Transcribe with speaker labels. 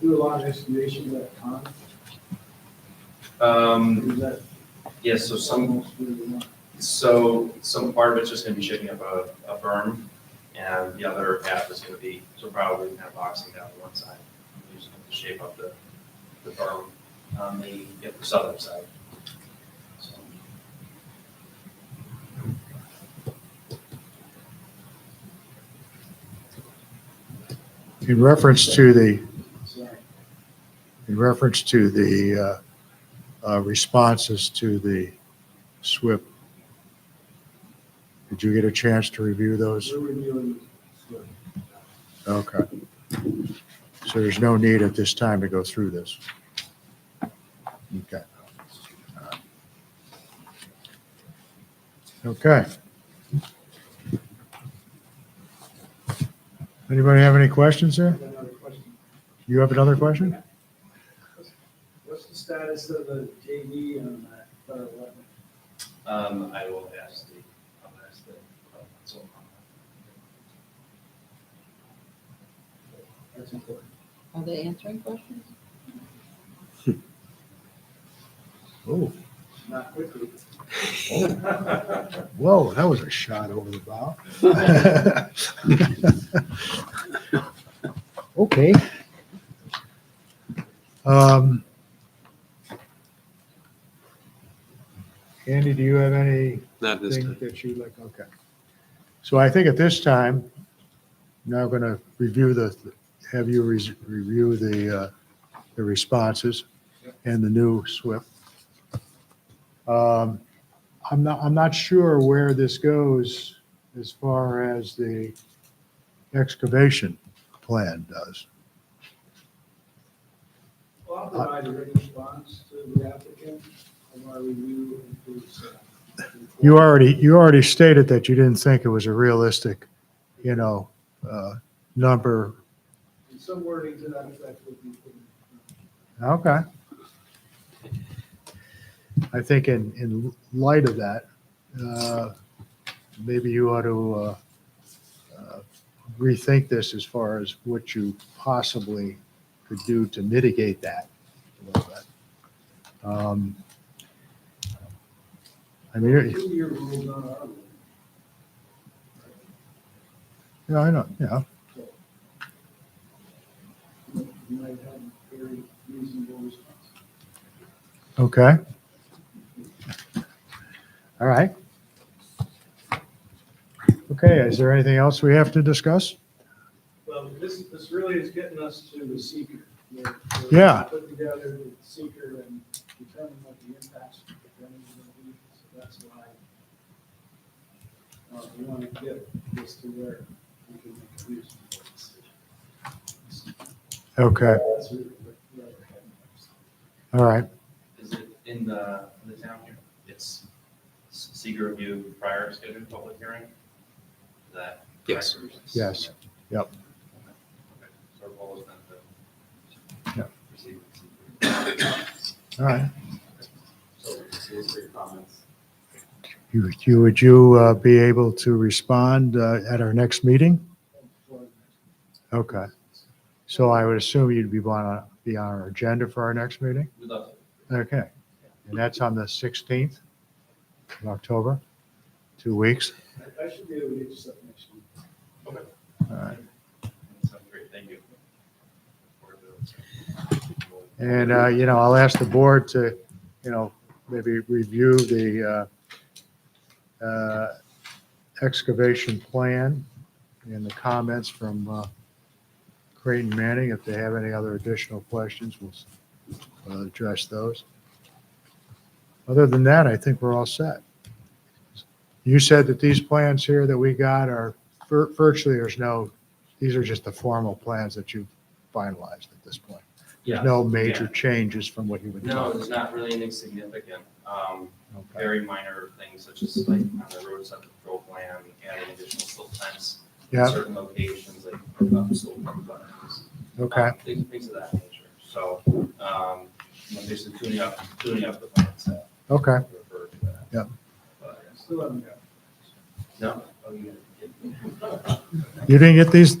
Speaker 1: do a lot of excavation of that pond?
Speaker 2: Um,
Speaker 1: Is that
Speaker 2: yes, so some,
Speaker 1: almost where we want?
Speaker 2: so some part of it's just gonna be shaping up a, a berm, and the other half is gonna be, so probably kind of boxing down one side. We're Just gonna shape up the, the berm on the, yeah, the southern side. So,
Speaker 3: In reference to the,
Speaker 1: Sorry.
Speaker 3: in reference to the uh, uh, responses to the SWIP, did you get a chance to review those?
Speaker 1: We're reviewing this.
Speaker 3: Okay. So there's no need at this time to go through this? Okay. Okay. Anybody have any questions
Speaker 1: I
Speaker 3: there?
Speaker 1: have another question.
Speaker 3: You have another question?
Speaker 1: What's the status of the JV on that uh, federal wetland?
Speaker 2: Um, I will ask the, I'll ask the, uh, so,
Speaker 1: That's important.
Speaker 4: Are they answering questions?
Speaker 3: Oh,
Speaker 1: Not quickly.
Speaker 2: uh,
Speaker 3: whoa, that was a shot over the bow. Okay. Um, Andy, do you have any?
Speaker 5: Not this
Speaker 3: thing
Speaker 5: time.
Speaker 3: that you like, okay. So I think at this time, now going to review the, have you res- review the, uh, the responses and the new SWIP. Um, I'm not, I'm not sure where this goes as far as the excavation plan does.
Speaker 1: Well, I'll provide a written response to the applicant of our review and his. uh, report.
Speaker 3: You already, you already stated that you didn't think it was a realistic, you know, uh, number.
Speaker 1: And Some wording to that effect would be. put in.
Speaker 3: Okay. I think in, in light of that, uh, maybe you ought to uh, uh, rethink this as far as what you possibly could do to mitigate that a little bit. Um, I mean, you're-
Speaker 1: Two year rules on our. rule.
Speaker 3: yeah, I know, yeah,
Speaker 1: You might have a very reasonable response.
Speaker 3: okay. All right. Okay, is there anything else we have to discuss?
Speaker 1: Well, this, this really is getting us to the seeker. We're- we're
Speaker 3: Yeah.
Speaker 1: Put together the seeker and determine what the impacts of the drainage are gonna be, so that's why. Uh, we wanna get this to where we can make a reasonable decision.
Speaker 3: Okay,
Speaker 1: That's really what the other head is.
Speaker 3: all right.
Speaker 2: is it in the, in the town here? It's seeker review prior scheduled public hearing? Is that?
Speaker 5: Yes.
Speaker 2: correct?
Speaker 3: Yes. Yep.
Speaker 2: Okay. So our goal is then to
Speaker 3: Yep.
Speaker 2: receive seeker.
Speaker 3: All right.
Speaker 2: So it's your comments.
Speaker 3: You, you, would you uh, be able to respond uh, at our next meeting? Okay. So I would assume you'd be want to be on our agenda for our next meeting?
Speaker 2: We'd love
Speaker 3: Okay. And that's on the 16th of October, two weeks.
Speaker 1: I, I should be able to get you something next week.
Speaker 3: All right.
Speaker 2: to. Sounds great, thank you.
Speaker 3: And, uh, you know, I'll ask the board to, you know, maybe review the uh, uh, excavation plan and the comments from uh, Creighton Manning. If they have any other additional questions, we'll s- we'll uh, address those. Other than that, I think we're all set. You said that these plans here that we got are vir- virtually, there's no, these are just the formal plans that you've finalized at this point. There's no major changes from what you would.
Speaker 2: No, there's not really anything significant. Um,
Speaker 3: Okay.
Speaker 2: very minor things such as like on the roadside control plan, adding additional silt fence. in
Speaker 3: Yeah,
Speaker 2: Certain locations, like up silt buttons.
Speaker 3: okay,
Speaker 2: um, Things, things of that nature. So, um, you know, basically tuning up, tuning up the plan set.
Speaker 3: okay.
Speaker 2: Refer to that.
Speaker 3: Yep.
Speaker 2: But,
Speaker 1: Still haven't got
Speaker 2: No. oh, you-
Speaker 3: You didn't get these,